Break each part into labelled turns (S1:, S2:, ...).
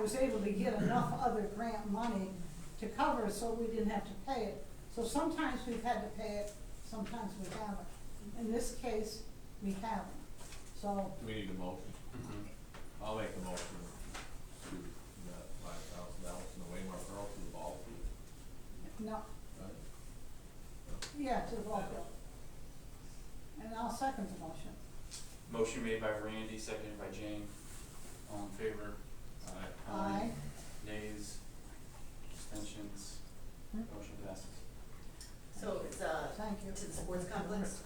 S1: was able to get enough other grant money to cover it, so we didn't have to pay it. So sometimes we've had to pay it, sometimes we haven't. In this case, we haven't. So,
S2: Do we need a motion?
S3: Mm-hmm.
S2: I'll make the motion to that five thousand dollars in the Waymark Borough to the ball field.
S1: no,
S2: Right?
S1: yeah, to the ball field. And I'll second the motion.
S3: Motion made by Randy, seconded by Jane. All in favor? Aye.
S1: Aye.
S3: Nays? Abstentions?
S1: Hmm.
S3: Motion passes.
S4: So it's, uh,
S1: Thank you.
S4: to the sports complex,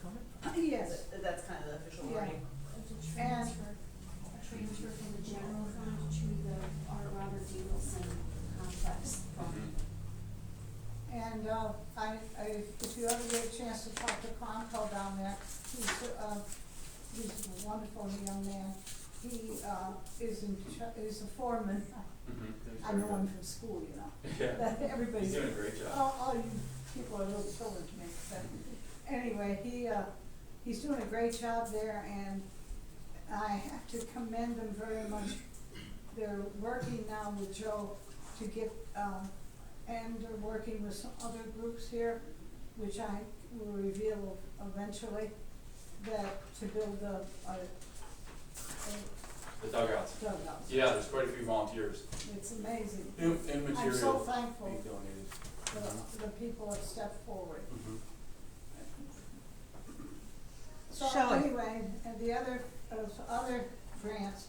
S1: Yes,
S4: That- that's kind of the official wording.
S5: It's a transfer, a transfer from the general fund to the Art Robert D. Wilson complex fund.
S3: Mm-hmm.
S1: and, uh, I, I, if you ever get a chance to talk to Conco down there, he's, uh, he's a wonderful young man. He, uh, is in, ch- is a foreman,
S3: Mm-hmm.
S1: I know him from school, you know.
S3: Yeah,
S1: Everybody's.
S3: he's doing a great job.
S1: All, all you people are little children to me, but anyway, he, uh, he's doing a great job there and I have to commend them very much. They're working now with Joe to get, um, and they're working with some other groups here, which I will reveal eventually, that, to build a, a, a
S3: The dugouts.
S1: dugout.
S3: Yeah, there's quite a few volunteers.
S1: It's amazing.
S3: New, new material.
S1: I'm so
S3: Being
S1: thankful
S3: donated.
S1: for the, the people that stepped forward.
S3: Mhm.
S1: So anyway, and the other, of other grants,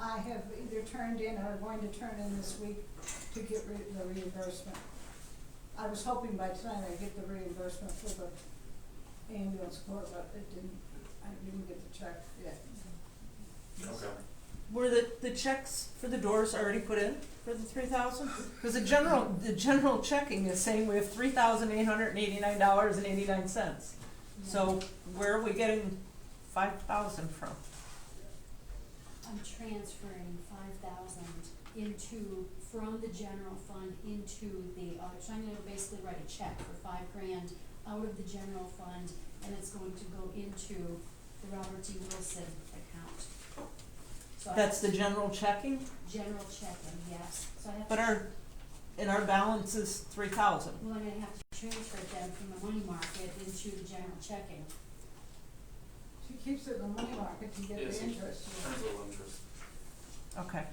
S1: I have either turned in or going to turn in this week to get re- the reimbursement. I was hoping by tonight I'd get the reimbursement for the ambulance corps, but it didn't, I didn't get the check yet.
S3: Okay.
S6: Were the, the checks for the doors already put in for the three thousand? Because the general, the general checking is saying we have three thousand eight hundred and eighty-nine dollars and eighty-nine cents. So where are we getting five thousand from?
S5: I'm transferring five thousand into, from the general fund into the art, so I'm gonna basically write a check for five grand out of the general fund, and it's going to go into the Robert D. Wilson account. So I-
S6: That's the general checking,
S5: General checking, yes, so I have to.
S6: but our, and our balance is three thousand.
S5: Well, I'm gonna have to transfer them from the money market into the general checking.
S1: She keeps it in the money market to get
S3: Yes,
S1: the
S3: you-
S1: interest.
S3: Turns a little interest.
S6: Okay.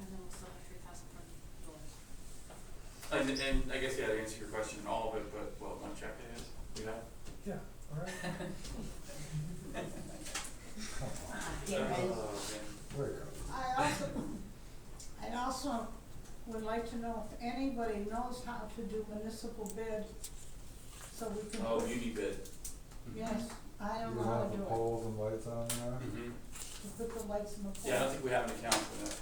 S7: And then we'll still have three thousand from doors.
S3: And, and I guess, yeah, to answer your question, all of it, but what, one check it is? We have?
S8: Yeah, all right,
S4: Uh-huh.
S5: Get
S3: Uh,
S5: ready.
S3: okay.
S8: there you go.
S1: I also, I also would like to know if anybody knows how to do municipal bid, so we can.
S3: Oh, uni bid.
S1: Yes, I
S8: You
S1: don't know how
S8: have the
S1: to do it,
S8: poles and lights on there?
S3: Mhm.
S1: to put the lights in the pole.
S3: Yeah, I don't think we have an account for that.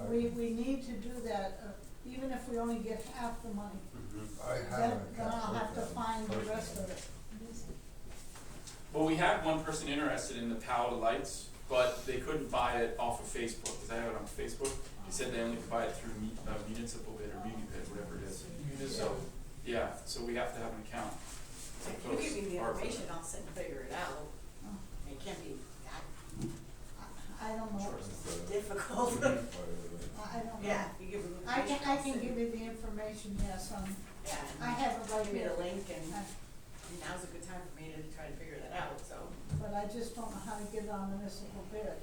S8: I-
S1: We, we need to do that, uh, even if we only get half the money,
S8: I have
S1: then,
S8: an
S1: then I'll
S8: account
S1: have to
S8: with them
S1: find the
S8: personally.
S1: rest of it.
S3: Well, we had one person interested in the Palo lights, but they couldn't buy it off of Facebook, because I have it on Facebook. They said they only could buy it through mu- uh, municipal bid or muni bid, whatever it is. So, yeah, so we have to have an account. Uh-huh.
S4: If you give me the information, I'll sit and figure it out. It can't be that
S1: I I don't know,
S4: difficult.
S3: Mhm.
S1: I I don't know.
S4: Yeah, you give me the
S1: I can,
S4: information.
S1: I
S4: I'll
S1: can
S4: sit-
S1: give you the information, yes, um,
S4: Yeah,
S1: I
S4: and
S1: have it right
S4: give me
S1: here,
S4: the link and
S1: I-
S4: and now's a good time for me to try to figure that out, so.
S1: but I just don't know how to get on municipal bid,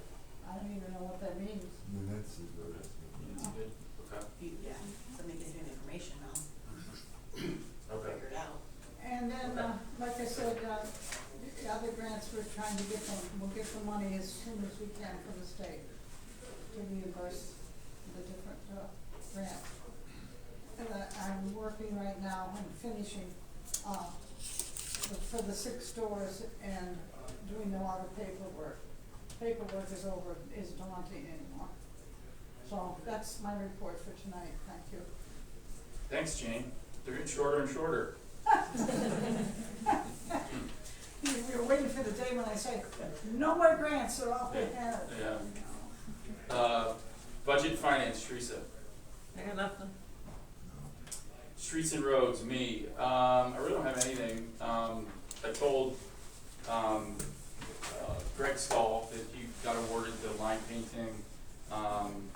S1: I don't even know what that means.
S8: Municipal.
S3: Muni bid, okay.
S4: you- Yeah, somebody gives me the information, I'll
S3: Okay.
S4: figure it out.
S1: And then, uh, like I said, uh, the other grants, we're trying to get them, we'll get the money as soon as we can from the state to reimburse the different, uh, grants. And I, I'm working right now on finishing, uh, for for the six stores and doing a lot of paperwork. Paperwork is over, is daunting anymore. So that's my report for tonight, thank you.
S3: Thanks, Jane. They're getting shorter and shorter.
S1: You- You're waiting for the day when I say, no more grants, they're all they have.
S3: Yeah. Uh, budget finance, Teresa.
S6: I got nothing.
S3: Streets and roads, me. Um, I really don't have anything. Um, I told, um, uh, Greg Stahl that he got awarded the line painting, um,